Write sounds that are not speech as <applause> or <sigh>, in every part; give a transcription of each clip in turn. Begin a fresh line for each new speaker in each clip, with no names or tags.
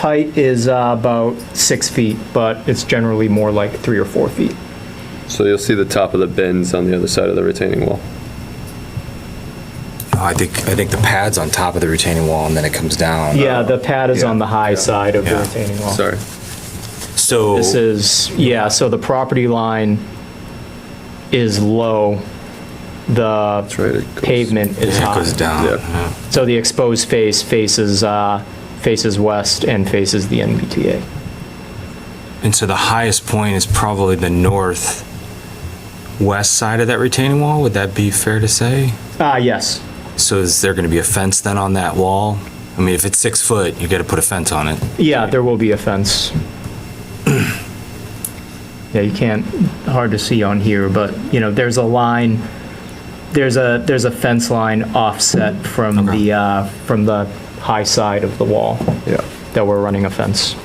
Height is uh, about six feet, but it's generally more like three or four feet.
So you'll see the top of the bins on the other side of the retaining wall.
I think, I think the pad's on top of the retaining wall and then it comes down.
Yeah, the pad is on the high side of the
Oh, Yeah.
retaining wall.
Sorry.
So,
This is, yeah, so the property line is low, the
Right, it goes-
pavement is
it
high.
goes down.
Yeah.
yeah.
So the exposed face faces, uh, faces west and faces the MBTA.
And so the highest point is probably the north west side of that retaining wall, would that be fair to say?
Ah, yes,
So is there gonna be a fence then on that wall? I mean, if it's six foot, you gotta put a fence on it.
yeah, there will be a fence. <clears throat> Yeah, you can't, hard to see on here, but, you know, there's a line, there's a, there's a fence line offset from
Okay.
the, uh, from the high side of the wall
Yeah.
that we're running a fence.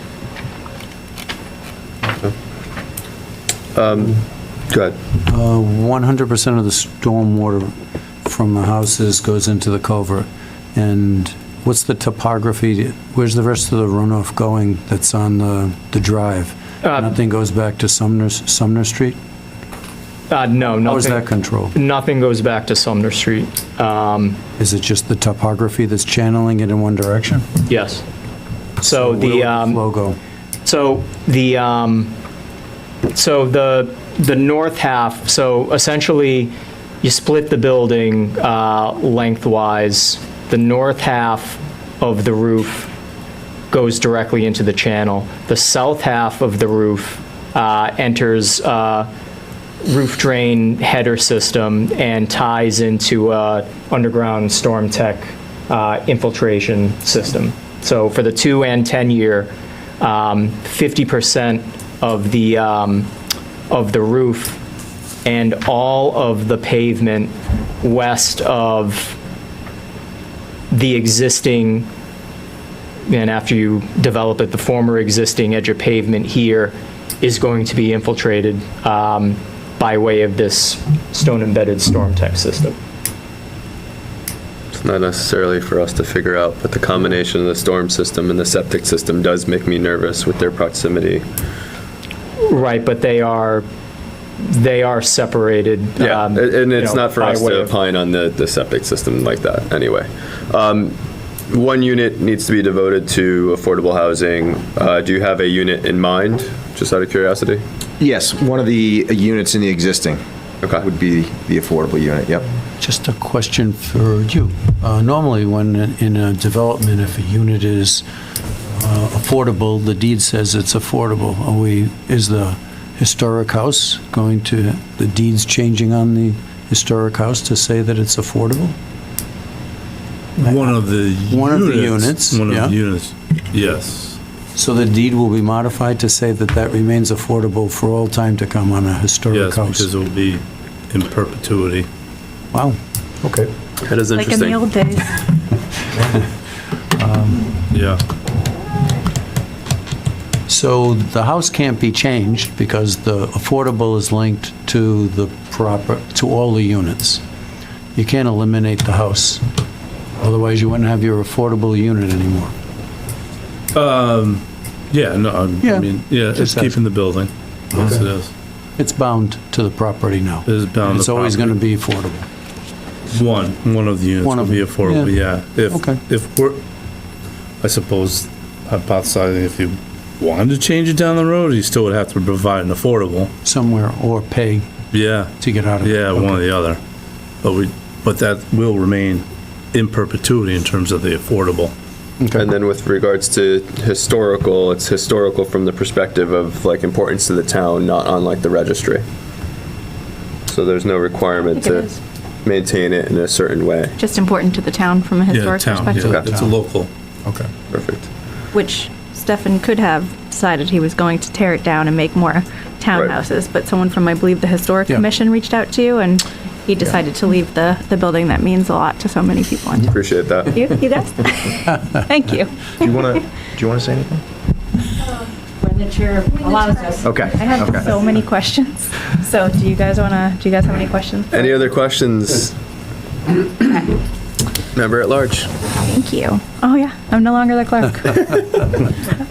Go ahead.
Uh, 100% of the stormwater from the houses goes into the culvert. And what's the topography? Where's the rest of the runoff going that's on the, the drive?
Uh,
Nothing goes back to Sumner, Sumner Street?
Uh, no,
How is that
nothing,
controlled?
nothing goes back to Sumner Street. Um,
Is it just the topography that's channeling it in one direction?
yes. So
Where would
the, um,
Flow go?
so the, um, so the, the north half, so essentially you split the building, uh, lengthwise. The north half of the roof goes directly into the channel. The south half of the roof, uh, enters, uh, roof drain header system and ties into uh, underground storm tech uh, infiltration system. So for the two and 10 year, um, 50% of the, um, of the roof and all of the pavement west of the existing and after you develop it, the former existing edge of pavement here is going to be infiltrated um, by way of this stone-embedded storm tech system.
It's not necessarily for us to figure out, but the combination of the storm system and the septic system does make me nervous with their proximity.
Right, but they are, they are separated.
Yeah,
um,
and and
you
it's
know,
not for
by
us
way
to
of-
opine on the, the septic system like that, anyway. Um, One unit needs to be devoted to affordable housing. Uh, Do you have a unit in mind, just out of curiosity?
Yes, one of the uh, units in the existing
Okay.
would be the affordable unit, yep.
Just a question for you. Uh, Normally, when in a development, if a unit is uh, affordable, the deed says it's affordable. Are we, is the historic house going to, the deed's changing on the historic house to say that it's affordable?
One of the
One of the units,
One
yeah.
of the units, yes.
So the deed will be modified to say that that remains affordable for all time to come on a historic
Yes, because
house?
it will be in perpetuity.
Wow, okay.
That is
Like in the old days.
Yeah,
So the house can't be changed because the affordable is linked to the proper, to all the units. You can't eliminate the house, otherwise you wouldn't have your affordable unit anymore.
yeah, no, I'm-
Yeah.
I mean, yeah, it's
Just
keeping the building. Yes, it is.
It's bound to the property now.
It is bound to
It's always going to be affordable.
One, one of the units
One
will
of
be
them,
affordable, yeah.
Okay.
If, if we're, I suppose, hypothesizing if you wanted to change it down the road, you still would have to provide an affordable.
somewhere or pay
Yeah,
to get out of it.
yeah,
Okay.
one or the other. But we, but that will remain in perpetuity in terms of the affordable.
And then with regards to historical, it's historical from the perspective of like importance to the town, not on like the registry. So there's no requirement
I think it
to
is.
maintain it in a certain way.
Just important to the town from a
Yeah,
historic
town, yeah,
perspective,
it's a local.
Okay.
Perfect.
which Stefan could have decided he was going to tear it down and make more townhouses, but someone from, I believe, the Historic
Yeah.
Commission reached out to you, and he decided to leave the, the building that means a lot to so many people in town.
Appreciate that.
You, you guys? Thank you.
Do you want to, do you want to say anything?
When the chair allows us.
Okay,
I have
okay.
so many questions, so do you guys wanna, do you guys have any questions? <coughs>
Any other questions? Member at large.
Thank Thank you. Oh, yeah, I'm no longer the clerk.